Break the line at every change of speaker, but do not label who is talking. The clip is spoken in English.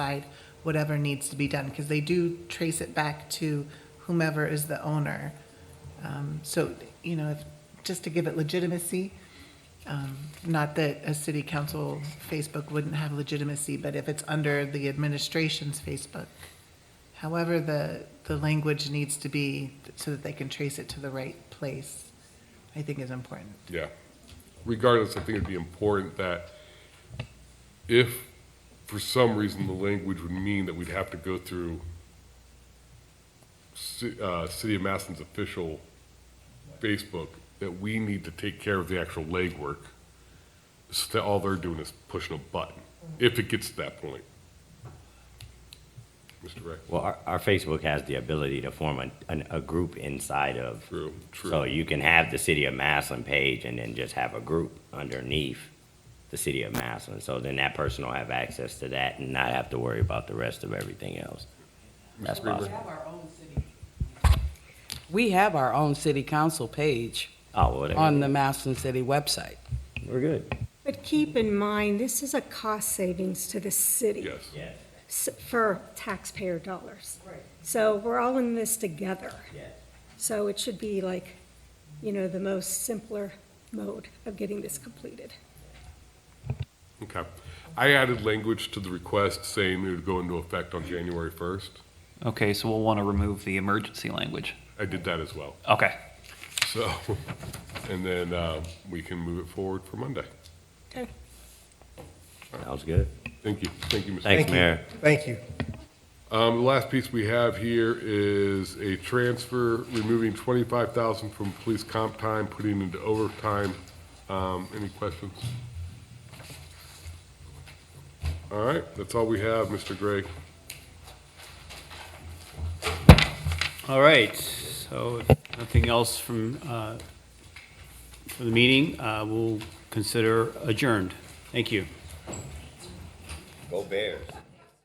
provide whatever needs to be done, because they do trace it back to whomever is the owner. Um, So, you know, if- just to give it legitimacy, um, not that a city council Facebook wouldn't have legitimacy, but if it's under the administration's Facebook. However, the, the language needs to be so that they can trace it to the right place, I think is important.
Yeah. Regardless, I think it'd be important that if for some reason the language would mean that we'd have to go through ci- uh, City of Masson's official Facebook, that we need to take care of the actual legwork. So that all they're doing is pushing a button, if it gets to that point. Mr. Reck,
Well, our, our Facebook has the ability to form a, an, a group inside of.
True, true.
So you can have the city of Maslin page and then just have a group underneath the city of Maslin. So then that person will have access to that and not have to worry about the rest of everything else. That's
Greenberg.
possible.
We have our own city council page
Oh, well,
on
then,
the Maslin City website.
we're good.
But keep in mind, this is a cost savings to the city.
yes.
Yes,
s- For taxpayer dollars. So we're all in this together.
yes.
So it should be like, you know, the most simpler mode of getting this completed.
Okay. I added language to the request saying it would go into effect on January 1st.
Okay, so we'll want to remove the emergency language.
I did that as well.
Okay.
So, and then uh, we can move it forward for Monday.
Okay.
Sounds good.
Thank you. Thank you, Mr.
Thanks, Mayor.
Thank you.
Um, the last piece we have here is a transfer removing 25,000 from police comp time, putting into overtime. Um, any questions? All right, that's all we have, Mr. Gray.
All right, so if nothing else from, uh, for the meeting, uh, we'll consider adjourned. Thank you.
Go Bears.